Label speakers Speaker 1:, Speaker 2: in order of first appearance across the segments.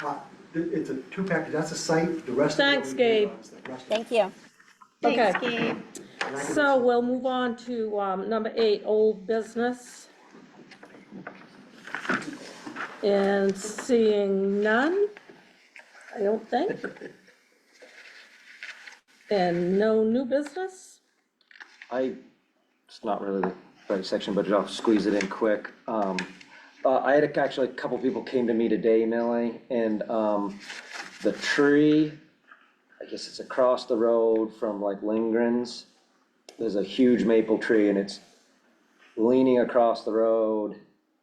Speaker 1: Uh, it- It's a two package, that's a site, the rest of it.
Speaker 2: Thanks, Gabe.
Speaker 3: Thank you.
Speaker 2: Okay.
Speaker 4: Thanks, Gabe.
Speaker 2: So we'll move on to um, number eight, old business. And seeing none, I don't think. And no new business?
Speaker 5: I, it's not really the right section, but I'll squeeze it in quick. Um, uh, I had a- actually, a couple people came to me today, Millie, and, um, the tree, I guess it's across the road from like Lindgren's. There's a huge maple tree and it's leaning across the road.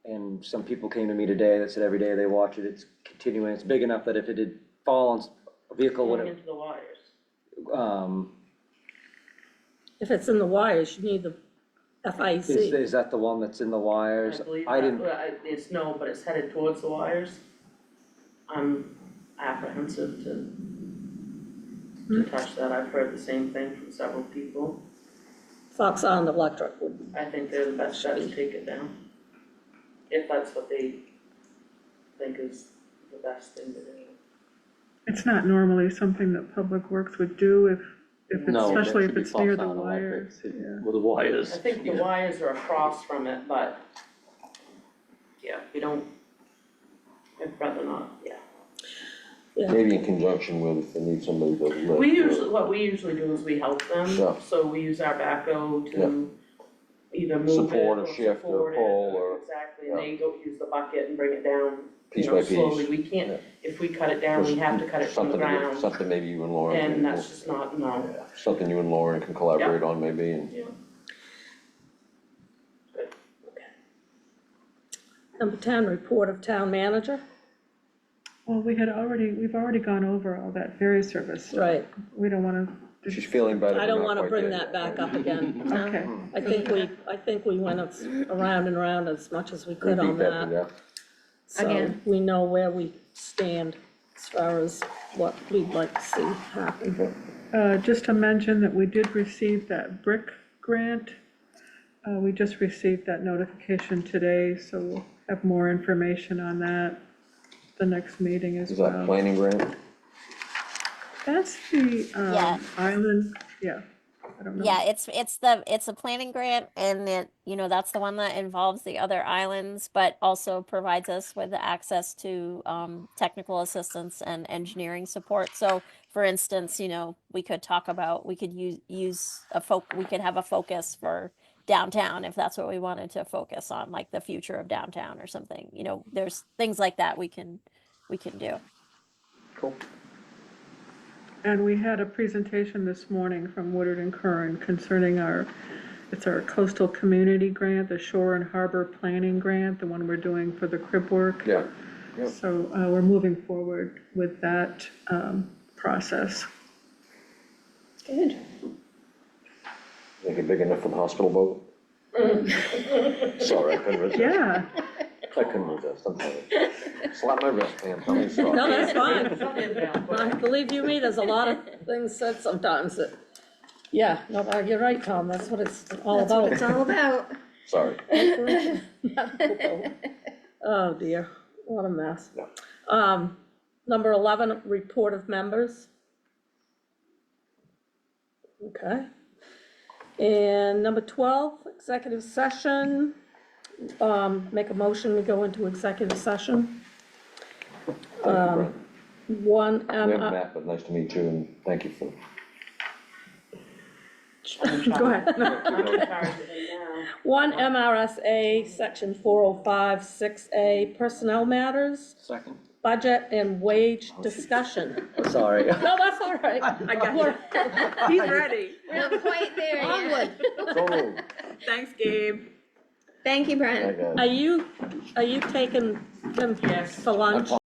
Speaker 5: And some people came to me today that said every day they watch it, it's continuing, it's big enough that if it did fall on s- a vehicle, would
Speaker 6: going
Speaker 5: have,
Speaker 6: into the wires.
Speaker 5: um,
Speaker 2: If it's in the wires, you need the
Speaker 5: is,
Speaker 2: FIC.
Speaker 5: is that the one that's in the
Speaker 6: I
Speaker 5: wires?
Speaker 6: believe
Speaker 5: I
Speaker 6: that-
Speaker 5: didn't.
Speaker 6: well, I- It's no, but it's headed towards the wires. I'm apprehensive to
Speaker 5: Hmm.
Speaker 6: to touch that. I've heard the same thing from several people.
Speaker 2: Fox on Electric would,
Speaker 6: I think they're the best shot to take it down. If that's what they think is the best thing to do.
Speaker 7: It's not normally something that Public Works would do if, if, it's-
Speaker 8: No, that
Speaker 7: especially
Speaker 8: should
Speaker 7: if
Speaker 8: be oh
Speaker 7: it's near
Speaker 8: Foxconn
Speaker 7: the
Speaker 8: Electric.
Speaker 7: wires.
Speaker 8: It-
Speaker 7: yeah.
Speaker 8: Well, the wires.
Speaker 6: I think the
Speaker 8: yeah.
Speaker 6: wires are across from it, but yeah, we don't, I'd rather not, yeah.
Speaker 9: Maybe in conjunction with, if they need somebody to lift.
Speaker 6: We usually, what we usually do is we help them,
Speaker 9: Yeah.
Speaker 6: so we use our backhoe to either move it or
Speaker 9: Support or
Speaker 6: support it.
Speaker 9: shift or pull or-
Speaker 6: Exactly, and they go use the bucket and bring it down,
Speaker 9: Piece
Speaker 6: you
Speaker 9: by
Speaker 6: know,
Speaker 9: piece.
Speaker 6: slowly, we can't,
Speaker 9: Yeah.
Speaker 6: if we cut it down, we have to cut it from the
Speaker 9: Something you-
Speaker 6: ground,
Speaker 9: Something maybe you and Lauren
Speaker 6: and
Speaker 9: can,
Speaker 6: that's just not, no.
Speaker 9: something you and Lauren can collaborate on maybe and.
Speaker 2: number ten, report of town manager,
Speaker 7: Well, we had already, we've already gone over all that ferry service. stuff.
Speaker 2: right.
Speaker 7: We don't wanna,
Speaker 9: She's feeling better.
Speaker 2: I
Speaker 9: but
Speaker 2: don't
Speaker 9: not
Speaker 2: wanna
Speaker 9: quite
Speaker 2: bring
Speaker 9: there
Speaker 2: that
Speaker 9: yet.
Speaker 2: back up again.
Speaker 7: okay,
Speaker 2: I think we, I think we went as- around and around as much as we could
Speaker 9: Repeat
Speaker 2: on that.
Speaker 9: yeah.
Speaker 2: So
Speaker 4: Again.
Speaker 2: we know where we stand as far as what we'd like to see happen.
Speaker 7: uh, just to mention that we did receive that brick grant. Uh, we just received that notification today, so we'll have more information on that the next meeting as
Speaker 9: Is
Speaker 7: well.
Speaker 9: that planning grant?
Speaker 7: That's the,
Speaker 3: Yeah.
Speaker 7: um, island, yeah, I don't know.
Speaker 3: Yeah, it's, it's the, it's a planning grant and it, you know, that's the one that involves the other islands, but also provides us with access to, um, technical assistance and engineering support. So for instance, you know, we could talk about, we could use, use a folk, we could have a focus for downtown if that's what we wanted to focus on, like the future of downtown or something, you know, there's things like that we can, we can do.
Speaker 7: And we had a presentation this morning from Woodard and Curran concerning our, it's our coastal community grant, the shore and harbor planning grant, the one we're doing for the crib work.
Speaker 9: Yeah. yeah.
Speaker 7: So uh, we're moving forward with that um, process.
Speaker 4: Good.
Speaker 9: Make it big enough for the hospital boat? Sorry, I couldn't resist.
Speaker 7: Yeah,
Speaker 9: I couldn't resist, I'm sorry. Slap my wrist, Pam, tell me sorry.
Speaker 2: No, that's fine.
Speaker 6: Something about-
Speaker 2: I Believe you me, there's a lot of things said sometimes that, yeah, no, uh, you're right, Tom, that's what it's all
Speaker 4: That's what it's
Speaker 2: about.
Speaker 4: all about.
Speaker 9: Sorry.
Speaker 2: Oh dear, what a mess.
Speaker 9: Yeah.
Speaker 2: Um, number eleven, report of members. Okay. And number twelve, executive session. Um, make a motion to go into executive session.
Speaker 9: Thank you,
Speaker 2: Um,
Speaker 9: Brent.
Speaker 2: One,
Speaker 9: We
Speaker 2: M
Speaker 9: haven't met, but nice to meet you and thank you for.
Speaker 2: go ahead.
Speaker 6: I'm in charge of it now.
Speaker 2: One MRSA, section four oh five, six A, personnel matters,
Speaker 5: Second.
Speaker 2: budget and wage discussion.
Speaker 5: Sorry.
Speaker 2: No, that's all right, I got you.
Speaker 7: he's ready.
Speaker 4: We're not quite there yet.
Speaker 9: So moved.
Speaker 7: Thanks, Gabe.
Speaker 4: Thank you, Brent.
Speaker 9: Hi, guys.
Speaker 2: Are you, are you taking them for lunch?